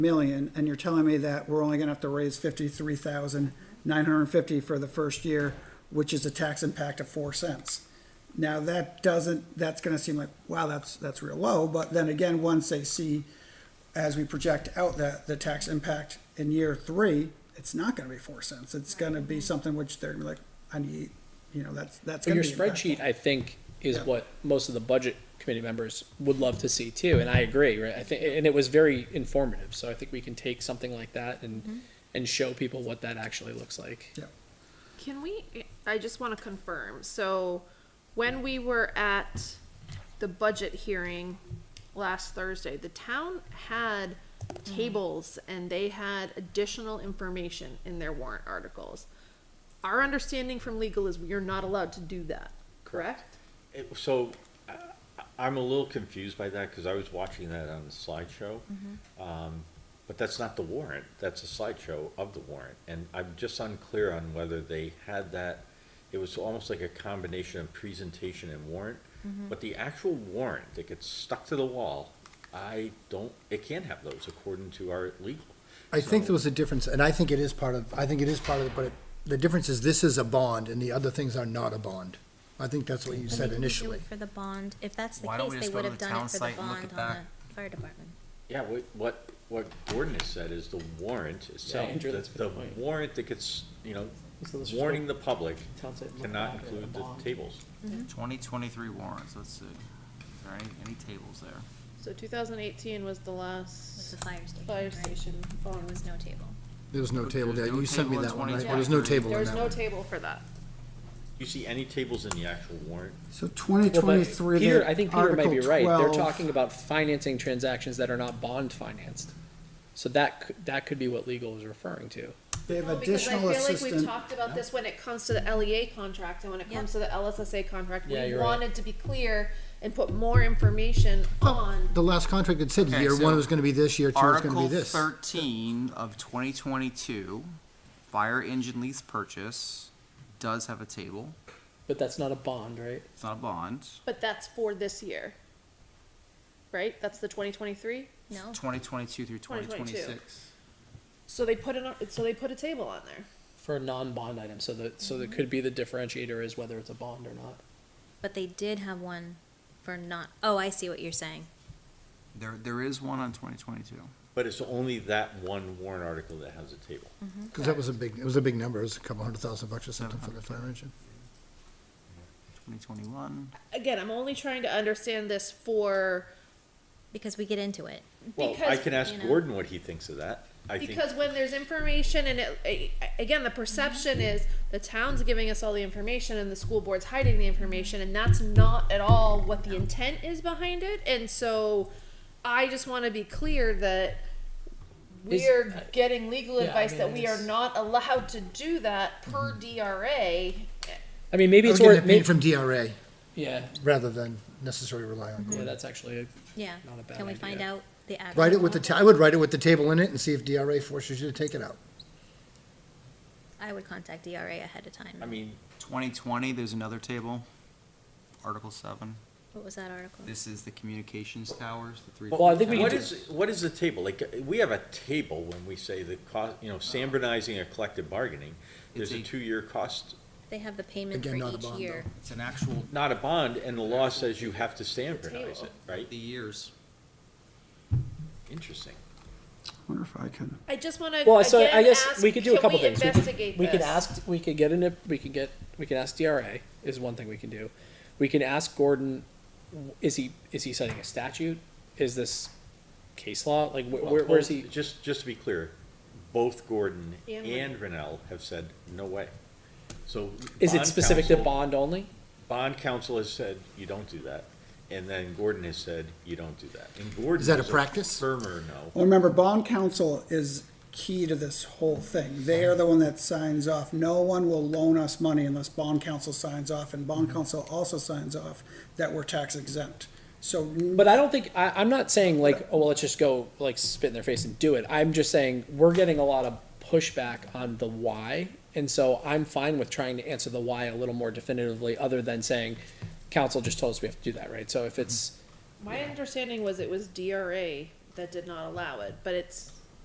million, and you're telling me that we're only gonna have to raise fifty-three thousand nine hundred and fifty for the first year, which is a tax impact of four cents. Now, that doesn't, that's gonna seem like, wow, that's, that's real low, but then again, once they see, as we project out that, the tax impact in year three, it's not gonna be four cents, it's gonna be something which they're gonna be like, I need, you know, that's, that's But gonna your be. impactful. spreadsheet, I think, is Yeah. what most of the budget committee members would love to see too, and I agree, right? I think, and it was very informative, so I think we can take something like that and, and show people what that actually looks like. Can we, I just wanna confirm, so when we were at the budget hearing last Thursday, the town had Mm. tables and they had additional information in their warrant articles. Our understanding from legal is we are not allowed to do that, correct? It- So, I- I'm a little confused by that, because I was watching that on the slideshow. Mm-hmm. Um, But that's not the warrant, that's a slideshow of the warrant, and I'm just unclear on whether they had that. It was almost like a combination of presentation and warrant, Mm-hmm. but the actual warrant that gets stuck to the wall, I don't, it can't have those according to our legal. I think So- there was a difference, and I think it is part of, I think it is part of it, but it- the difference is this is a bond and the other things are not a bond. I think that's what you But said they didn't do initially. it For the bond, if that's the Why don't we case, they just go would to have the done town it for the site and look bond it on back? the fire department. Yeah, what, what, what Gordon has said is the warrant itself, Andrew, the, that's a the good point. warrant that gets, you know, So let's just go- warning the public Town site, look cannot back at the include the bond. tables. Twenty twenty-three warrants, let's see. Is there any, any tables there? So two thousand eighteen was the It was last the fire station, fire right? station There was no table. There was no table there. There's no You sent me table in that one, right? 2023. There was no table There in was that no one. table for that. You see any tables in the actual warrant? So Well, but twenty-twenty-three, Peter, I think Peter might be right, they're talking. talking about financing transactions that are not bond financed. So that, c- that could be what legal is referring to. They have No, because I additional feel like assistance. we've talked about this when it comes to the LEA contract and when it Yeah. comes to the LSSA contract. Yeah, We you're right. wanted to be clear and put more information on, The last contract had said Okay, year one so was gonna be this, year two was gonna be Article this. thirteen of twenty twenty-two, fire engine lease purchase, does have a table. But that's not a bond, right? It's not a bond. but that's for this year. Right? That's the twenty twenty-three? No, Twenty twenty-two through twenty 2022. twenty-six. So they put it on, so they put a table on there. For a non-bond item, so that, so that could be the differentiator is whether it's a bond or not. but they did have one for not, oh, I see what you're saying. There, there is one on twenty twenty-two. But it's only that one warrant article that has a table. Cause that was a big, it was a big number. It was a couple hundred thousand bucks or something for the fire engine. Twenty twenty-one. Again, I'm only trying to understand this for, Because we get into it. Well, I because, can ask you know- Gordon what he thinks of that. I think, because when there's information and it, a- again, the perception is the town's giving us all the information and the school board's hiding the information, and that's not at all what the intent is behind it. And so, I just want to be clear that Is- uh, we're getting legal Yeah, I advice mean, that we are it's- Mm-hmm. not allowed to do that per DRA. I mean, maybe I it's was getting worth, it paid may- from DRA yeah, rather than necessarily rely on. yeah, Gordon. that's actually a Yeah. Not a bad Can we find idea. out the actual? Write it with the, ta- I would write it with the table in it and see if DRA forces you to take it out. I would contact DRA ahead of I time. mean, Twenty twenty, there's another table. Article seven. What was that article? This is the communications towers, the three. Well, I think we what can do- is, what is the table? Like, uh, we have a table when we say the cost, you know, standardizing a collective bargaining. There's It's a a- two-year cost, They have the payment for Again, not a each bond, year. It's an actual, not a bond, and the law says you have to standardize table. it, right? the years. Interesting. Wonder if I can. I just want to. Well, so I guess we could do a couple can we things. We Investigate could, we could this? ask, we could get an, we could get, we can ask DRA is one thing we can do. We can ask Gordon, is he, is he citing a statute? Is this case law? Like, wh- Well, where, where's he? both- Just, just to be clear, both Gordon And and Rennell have said, no way. So. Is it bond specific to counsel- bond only? Bond counsel has said, you don't do that. And then Gordon has said, you don't do that. And Gordon. Is that a is practice? Firmer no. Well, remember, bond counsel is key to this whole thing. They are the one that signs off. No one will loan us money unless bond counsel signs off, and bond counsel also signs off that we're tax exempt. So, But I don't think, I, I'm not saying like, oh, well, let's just go like spit in their face and do it. I'm just saying we're getting a lot of pushback on the why. And so I'm fine with trying to answer the why a little more definitively, other than saying council just told us we have to do that, right? So if it's, My understanding was it was DRA that did not allow it, but it's